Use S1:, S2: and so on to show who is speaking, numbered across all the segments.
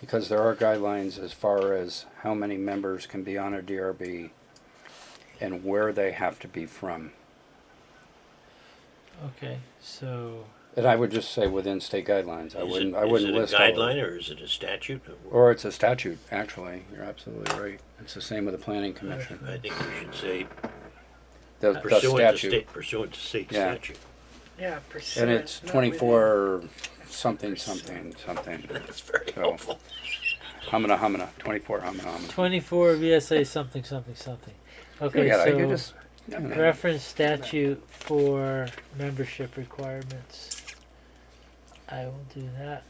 S1: because there are guidelines as far as how many members can be on a DRB and where they have to be from.
S2: Okay, so
S1: And I would just say within state guidelines, I
S3: Is it-
S1: wouldn't, I wouldn't list. all
S3: Is it a
S1: of them.
S3: guideline or is it a statute?
S1: Or it's a statute, actually, you're absolutely right, it's the same with the planning commission.
S3: I think we should say
S1: The- the
S3: pursuant to
S1: statute.
S3: state, pursuant to state
S1: Yeah.
S3: statute.
S4: Yeah, percent.
S1: And it's twenty-four something, something, something,
S3: That's very
S1: So-
S3: helpful.
S1: humana, humana, twenty-four humana, humana.
S2: 24 VSA something something something. Okay,
S1: Yeah, you
S2: so
S1: just- you know.
S2: reference statute for membership requirements. I will do that.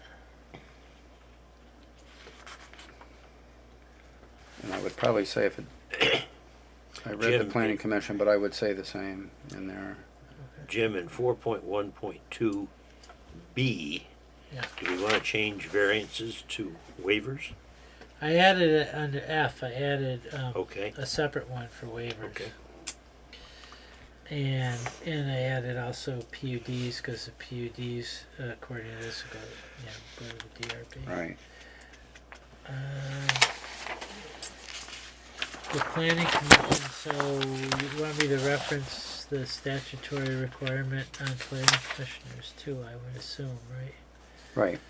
S1: And I would probably say if it, I read the
S3: Jim,
S1: planning
S3: it-
S1: commission, but I would say the same in there.
S3: Jim, in four point one point two B,
S2: Yeah.
S3: do we want to change variances to waivers?
S2: I added it under F. I added um,
S1: Oh.
S3: Okay,
S2: a separate one for waivers.
S3: Okay.
S2: And and I added also PUDs because the PUDs, uh, according to this, go yeah go to the DRB.
S1: Right.
S2: Um, The planning commission, so you want me to reference the statutory requirement on planning commissioners too, I would assume, right?
S1: Right.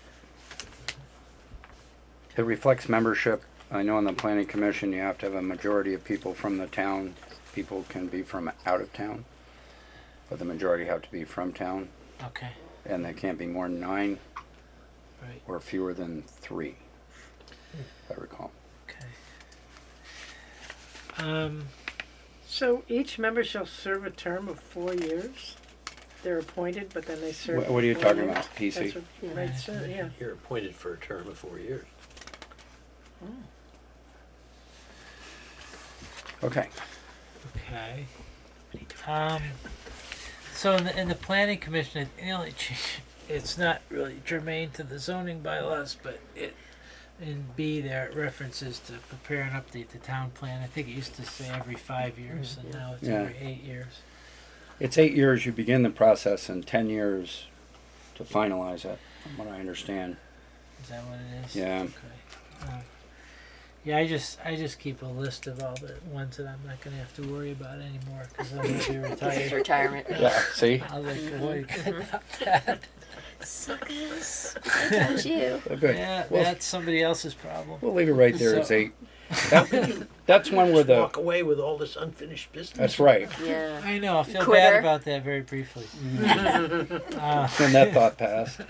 S1: It reflects membership. I know on the planning commission, you have to have a majority of people from the town. People can be from out of town, but the majority have to be from town,
S2: Okay,
S1: and they can't be more than nine
S2: right,
S1: or fewer than three, if I recall.
S2: okay. Um,
S4: So each member shall serve a term of four years. They're appointed, but then they serve.
S1: Wha- what are you
S4: four
S1: talking
S4: years.
S1: about, PC?
S4: That's what you might say, yeah.
S3: you're appointed for a term of four years.
S1: Okay.
S2: okay. Um, so in the, in the planning commission, it- the only change, it's not really germane to the zoning bylaws, but it, in B there, it references to prepare and update the town plan. I think it used to say every five years, and now it's
S1: Yeah.
S2: every eight years.
S1: It's eight years you begin the process and 10 years to finalize it, from what I understand.
S2: Is that what it is?
S1: Yeah.
S2: Okay. Um, yeah, I just I just keep a list of all the ones that I'm not gonna have to worry about anymore because I'm gonna be
S5: This is
S2: retired.
S5: retirement.
S1: Yeah, see?
S2: I was like, "Well, you
S5: Mm-hmm.
S2: could have that."
S5: Suckers. I told you.
S2: Yeah,
S1: Well-
S2: that's somebody else's problem.
S1: We'll leave it right there as
S2: So-
S1: eight. That- That's one where the,
S3: Walk away with all this unfinished business.
S1: that's right.
S5: Yeah.
S2: I know. I feel bad
S5: Quitter.
S2: about that very briefly. uh,
S1: When that thought passed.
S2: um,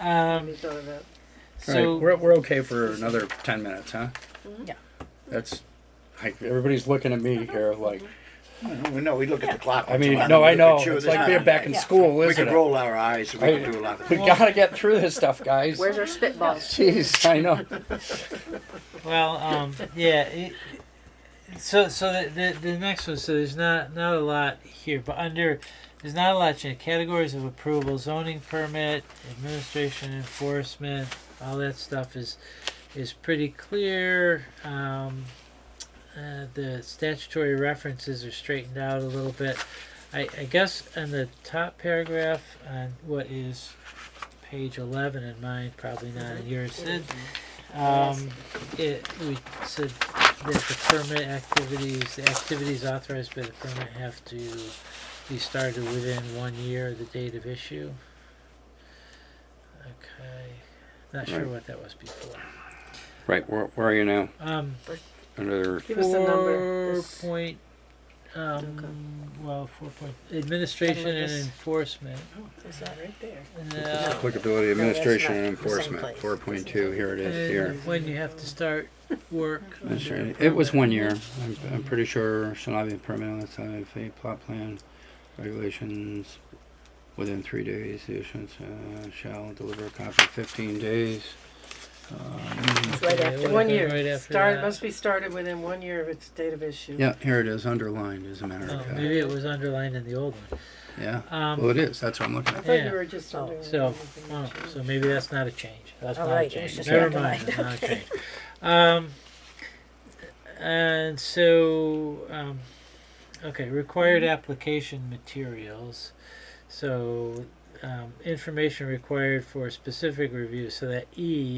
S4: Somebody thought of that.
S1: Right,
S2: so
S1: we're, we're okay for another ten minutes, huh?
S2: Yeah.
S1: That's, like, everybody's looking at me here like,
S6: We know, we look at the clock.
S1: I mean, no, I know, it's like
S6: we're
S1: being back in school,
S6: We
S1: isn't
S6: can
S1: it?
S6: roll our eyes, we
S1: I-
S6: can do a lot of
S1: We gotta get through this stuff, guys.
S5: Where's our spitballs?
S1: Jeez, I know.
S2: well, um, yeah. It, so so the, the the next one. So there's not not a lot here, but under there's not a lot in categories of approval, zoning permit, administration, enforcement, all that stuff is is pretty clear. Um, uh, the statutory references are straightened out a little bit. I, I guess in the top paragraph on what is page 11 in mine, probably not in yours, Sid, um, it, we said that the permit activities, the activities authorized by the permit have to be started within one year of the date of issue. Okay. Not sure
S1: Right.
S2: what that was before.
S1: Right, where, where are you now?
S2: Um,
S1: Under,
S4: Give us the number.
S2: Four
S4: This-
S2: point,
S5: Okay.
S2: um, well, four point, administration and
S5: this-
S2: enforcement.
S4: Oh, Is that right there?
S2: No.
S1: applicability,
S4: No, that's
S1: administration, and
S4: not the same
S1: enforcement,
S4: place.
S1: four point two, here it is,
S2: And
S1: here.
S2: When you have to start work.
S1: That's
S2: under
S1: right. It was
S2: permit.
S1: one year. I'm, I'm pretty sure shall not be permitted unless I have a plot plan regulations within three days. The issuance uh, shall deliver a copy in 15 days. Um,
S5: It's right
S2: Yeah,
S5: after.
S2: what-
S4: One
S2: Okay,
S4: year.
S2: right after
S4: Start,
S2: that.
S4: must be started within one year of its date of issue.
S1: yeah, here it is, underlined as a matter
S2: Mm-hmm. Oh,
S1: of fact.
S2: maybe it was underlined in the old one.
S1: Yeah.
S2: um,
S1: well, it is. That's what I'm looking
S4: I
S1: at.
S4: thought
S2: Yeah.
S4: you were just.
S5: Oh,
S4: wondering if
S2: So,
S4: anything
S2: oh,
S4: had
S2: so maybe that's not a change. That's not a
S5: Alright, it was
S2: change.
S5: just
S2: Never mind.
S5: underlined,
S2: That's not a change. Um, and so, um, okay, required application materials. So, um, information required for specific review. So that E